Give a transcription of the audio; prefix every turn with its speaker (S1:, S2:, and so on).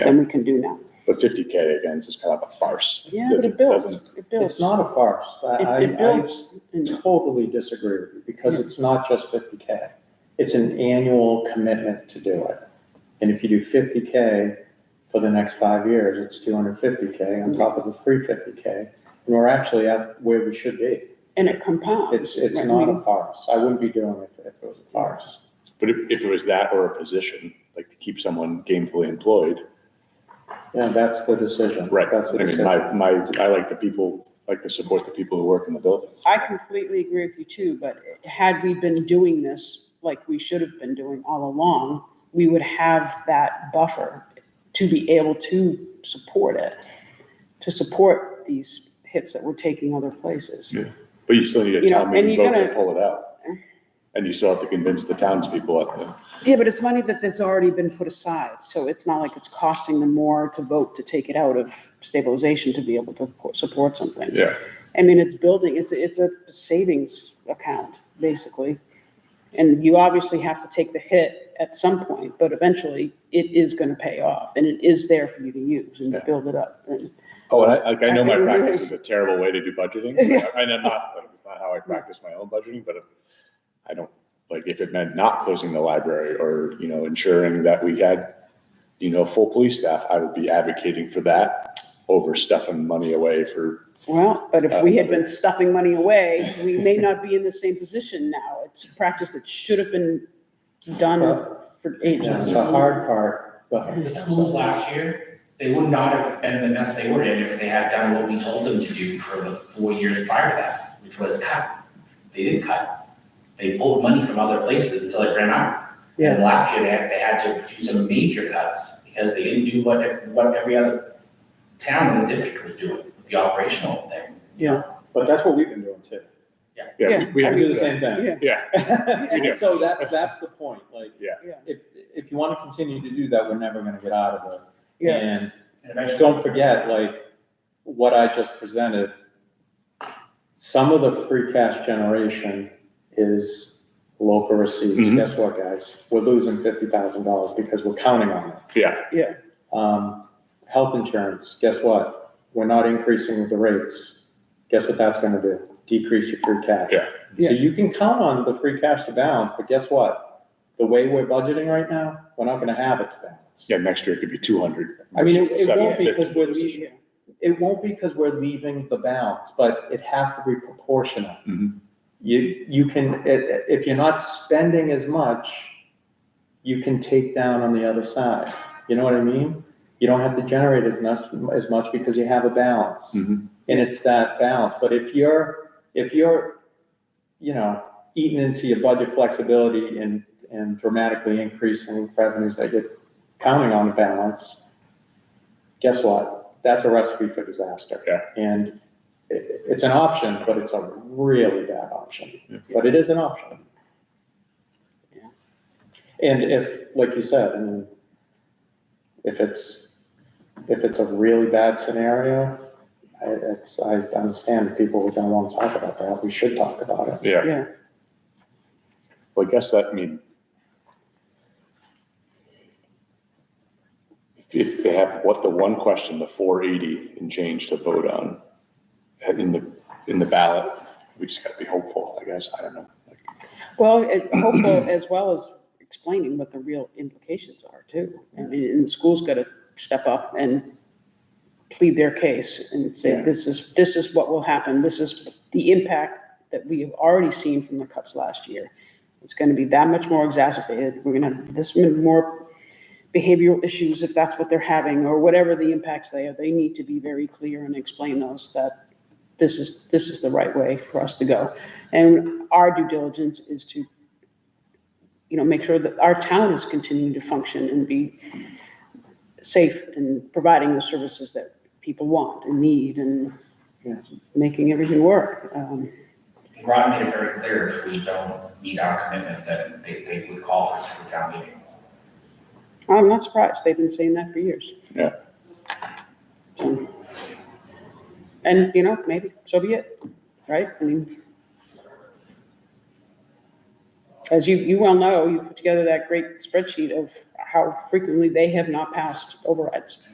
S1: than we can do now.
S2: But fifty K again is just kind of a farce.
S1: Yeah,
S2: It
S1: but it builds,
S2: doesn't-
S1: it
S3: It's
S1: builds.
S3: not a farce. I,
S1: It-
S3: I
S1: it builds.
S3: I totally disagree with you because it's not just fifty K. It's an annual commitment to do it. And if you do fifty K for the next five years, it's two hundred fifty K on top of the three fifty K. And we're actually at where we should be.
S1: And it compounds.
S3: It's, it's
S1: Right,
S3: not
S1: I mean-
S3: a farce. I wouldn't be doing it if it was a farce.
S2: But if, if it was that or a position, like to keep someone gainfully employed,
S3: Yeah, that's the decision.
S2: right?
S3: That's the
S2: I mean,
S3: decision.
S2: my, my, I like the people, like to support the people who work in the building.
S1: I completely agree with you too, but had we been doing this like we should have been doing all along, we would have that buffer to be able to support it, to support these hits that we're taking other places.
S2: But you still need a
S1: You know,
S2: town
S1: and
S2: meeting
S1: you're
S2: vote to
S1: gonna-
S2: pull it out. And you still have to convince the townspeople at the,
S1: Yeah, but it's money that that's already been put aside, so it's not like it's costing them more to vote to take it out of stabilization to be able to po- support something.
S2: yeah.
S1: I mean, it's building, it's, a- it's a savings account, basically. And you obviously have to take the hit at some point, but eventually it is gonna pay off and it is there for you to use and to
S2: Yeah.
S1: build it up. And
S2: Oh, and I, like, I know my
S1: I-
S2: practice is a terrible way to do budgeting,
S1: Yeah.
S2: and I'm not, like, it's not how I practice my own budgeting, but if- I don't, like, if it meant not closing the library or, you know, ensuring that we had, you know, full police staff, I would be advocating for that over stuffing money away for,
S1: Well, but if we had been stuffing money away, we may not be in the same position now. It's a practice that should have been done for
S3: Yeah,
S1: ages.
S3: it's the hard part, but.
S4: The schools last year, they would not have been in the mess they were in if they had done what we told them to do for the four years prior to that, which was cut. They didn't cut. They pulled money from other places until it ran out.
S1: Yeah.
S4: And last year, they had, they had to do some major cuts because they didn't do what, what every other town in the district was doing, with the operational thing.
S3: But that's what we've been doing too.
S2: yeah,
S1: Yeah,
S2: we- we,
S3: We
S2: have to
S3: do the
S2: do that.
S3: same thing.
S1: Yeah,
S2: yeah, We do.
S3: And so that's, that's the point, like.
S2: Yeah.
S1: Yeah.
S3: If, if you want to continue to do that, we're never gonna get out of it.
S1: yeah.
S3: And
S4: And eventually-
S3: don't forget, like, what I just presented, some of the free cash generation is local receipts.
S2: Mhm.
S3: Guess what, guys? We're losing fifty thousand dollars because we're counting on it.
S2: yeah,
S3: Um, health insurance, guess what? We're not increasing the rates. Guess what that's gonna do? Decrease your free cash.
S2: Yeah.
S1: Yeah.
S3: So you can count on the free cash to balance, but guess what? The way we're budgeting right now, we're not gonna have it to balance.
S2: yeah, next year it could be two hundred.
S3: I mean, it- it won't be
S2: 750.
S3: because we're leaving, it won't be because we're leaving the balance, but it has to be proportional.
S2: Mhm.
S3: You, you can, i- i- if you're not spending as much, you can take down on the other side. You know what I mean? You don't have to generate as much, as much because you have a balance.
S2: Mhm.
S3: And it's that balance. But if you're, if you're, you know, eating into your budget flexibility and, and dramatically increasing revenues that you're counting on to balance, guess what? That's a recipe for disaster.
S2: Yeah.
S3: And it, it's an option, but it's a really bad option.
S2: Yeah.
S3: But it is an option.
S1: Yeah.
S3: And if, like you said, I mean, if it's, if it's a really bad scenario, I, it's, I understand people are gonna wanna talk about that, we should talk about it.
S2: Yeah,
S1: Yeah,
S2: well, I guess that, I mean, if- if they have, what, the one question, the four eighty and change to vote on uh, in the, in the ballot, we just gotta be hopeful, I guess, I don't know.
S1: well, it- hopeful as well as explaining what the real implications are too. I mean, and the school's gotta step up and plead their case and say,
S3: Yeah.
S1: this is, this is what will happen, this is the impact that we have already seen from the cuts last year. It's gonna be that much more exacerbated, we're gonna have this many more behavioral issues if that's what they're having, or whatever the impacts they are, they need to be very clear and explain those, that this is, this is the right way for us to go. And our due diligence is to, you know, make sure that our town is continuing to function and be safe and providing the services that people want and need and
S3: Yeah.
S1: making everything work. Um,
S4: Rod made it very clear if we don't meet our commitment, then they, they would call for a second town meeting.
S1: I'm not surprised, they've been saying that for years.
S2: Yeah.
S1: So- And, you know, maybe, so be it, right? I mean, As you, you well know, you put together that great spreadsheet of how frequently they have not passed overrides.